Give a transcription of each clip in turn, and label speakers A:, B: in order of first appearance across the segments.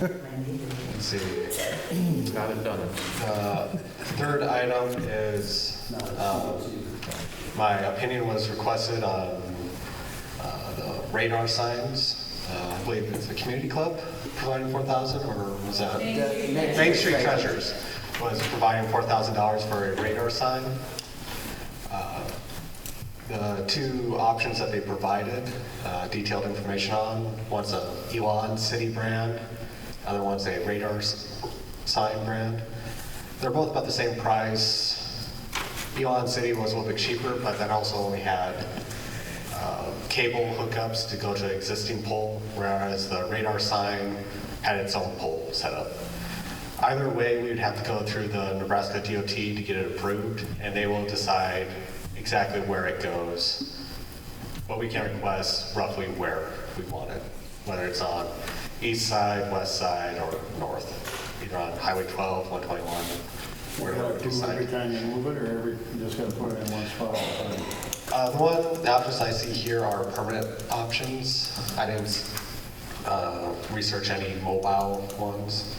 A: Let's see. Got it done. Uh, Third item is, um, my opinion was requested on uh, the radar signs. Uh, I believe it's the community club providing 4,000, or was that? Main Street Treasures was providing $4,000 for a radar sign. Uh, The two options that they provided, uh, detailed information on, one's a Elon City brand, other one's a radar s- sign brand. They're both about the same price. Elon City was a little bit cheaper, but that also only had uh, cable hookups to go to existing pole, whereas the radar sign had its own pole set up. Either way, we would have to go through the Nebraska DOT to get it approved, and they will decide exactly where it goes. But we can request roughly where we want it, whether it's on east side, west side, or north, either on Highway 12, 121,
B: You gotta
A: wherever we
B: do every
A: decide.
B: time you move it, or every, you just gotta put it in one spot? all the time?
A: Uh, The one, the options I see here are permanent options. I didn't uh, research any mobile ones.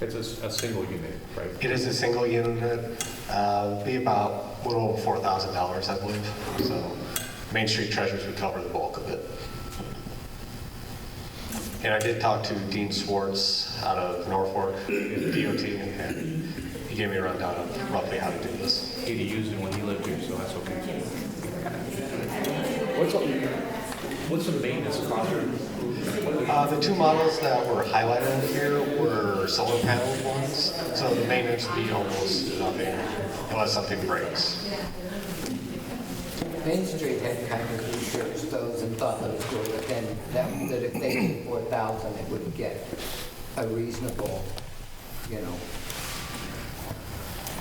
C: It's a, s- a single unit, right?
A: It is a single unit, uh, be about a little over $4,000, I believe. So Main Street Treasures would cover the bulk of it. And I did talk to Dean Swartz out of Norfolk, DOT, and he gave me a rundown of roughly how to do this.
C: He'd used it when he lived here, so that's okay. What's, the- what's the maintenance cost? What are the-
A: Uh, The two models that were highlighted here were solar panel ones, so the maintenance would be almost nothing unless something breaks.
D: Main Street had kind of researched those and thought that it was within, that, that if they did four thousand, it would get a reasonable, you know.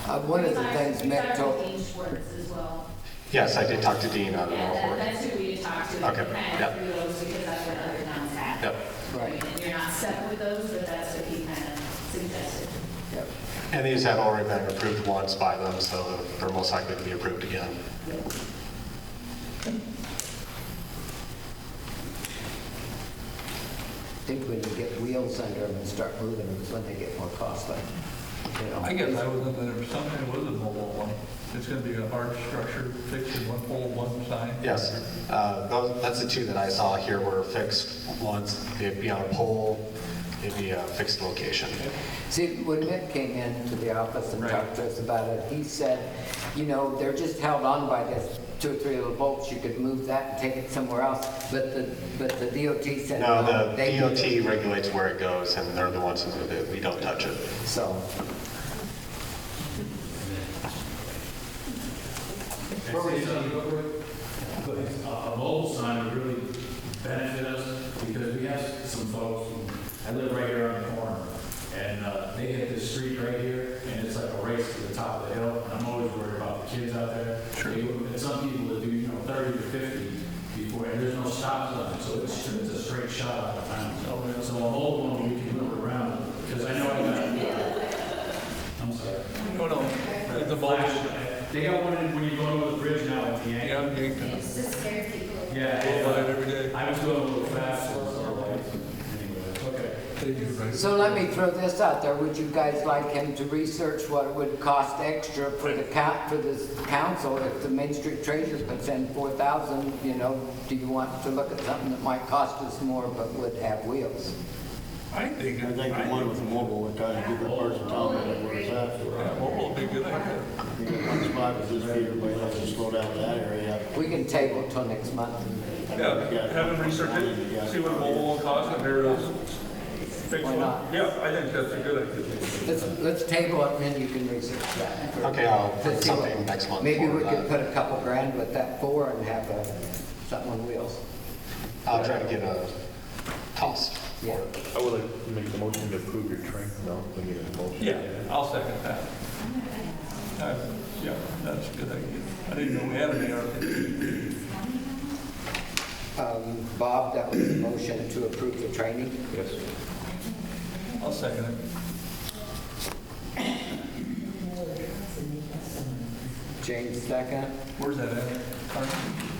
D: Uh, one of the things Mick told.
E: We talked to Dean Schwartz as well.
A: Yes, I did talk to Dean out of
E: Yeah, that-
A: Norfolk.
E: that's who we talked to. and
A: Okay,
E: Kind
A: yep.
E: of through those because that's what other towns have.
A: Yep.
D: Right.
E: And you're not stuck with those, but that's what he kind of suggested.
D: Yep.
A: And these had already been approved once by them, so they're most likely to be approved again.
D: I think when you get wheels under them and start moving them, is when they get more costly, you know.
F: I guess I was under the assumption it was a mobile one. It's going to be a hard structure fixed in one pole, one sign.
A: Yes, uh, those- that's the two that I saw here were fixed ones. It'd be on a pole, it'd be a fixed location.
D: See, when Mick came into the office and
F: Right.
D: talked to us about it, he said, you know, they're just held on by this two or three little bolts, you could move that and take it somewhere else, but the, but the DOT said,
A: No,
D: no,
A: the
D: they do
A: DOT regulates where it goes, and they're the ones who move it. We don't touch it.
D: So,
G: But a uh, a mobile sign would really benefit us because we have some folks, who- I live right here on the corner, and uh, they hit this street right here, and it's like a race to the top of the hill, and I'm always worried about the kids out there. Sure. And some people that do, you know, 30 to 50 before, and there's no stop sign, so it's, it's a straight shot out of town. So- So a mobile one, we can move around, because I know I got, I'm sorry.
F: No, no, it's a mobile.
G: Flash. They got one in- when you go over the bridge now at the end.
F: Yeah, you can
E: It's just scary people.
G: Yeah,
F: go by it
G: it,
F: every
G: uh,
F: day.
G: I was going a little fast, so it's all right. Anyway, okay.
F: They do, right?
D: so let me throw this out there, would you guys like him to research what it would cost extra for the count, for this council, if the Main Street Treasure could send four thousand, you know, do you want to look at something that might cost us more but would have wheels?
F: I think,
B: I think the one with the mobile would kind of give the person time to know where it's at.
F: yeah, mobile would be a good idea.
B: You get one spot, it's just everybody has to slow down in that area.
D: We can table till next month.
F: Yeah, have them research it, see what a mobile one costs, and there it is. Fix
D: Why
F: one.
D: not?
F: Yeah, I think that's a good idea.
D: Let's, let's table it, and then you can research that.
A: Okay, I'll put
D: Let's see what-
A: something next month.
D: Maybe
A: for uh,
D: we
A: that.
D: could put a couple grand with that four and have a, something on wheels.
A: I'll try to get a cost.
D: Yeah.
C: I would like to make the motion to approve your train, no, we need a motion.
F: Yeah, I'll second that. Uh, Yeah, that's a good idea. I didn't know we had any other.
D: Um, Bob, that was the motion to approve the training.
C: Yes.
F: I'll second it.
D: James second.
F: Where's that at? Carmen?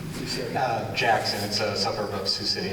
A: Uh, Jackson, it's a suburb of Sioux City.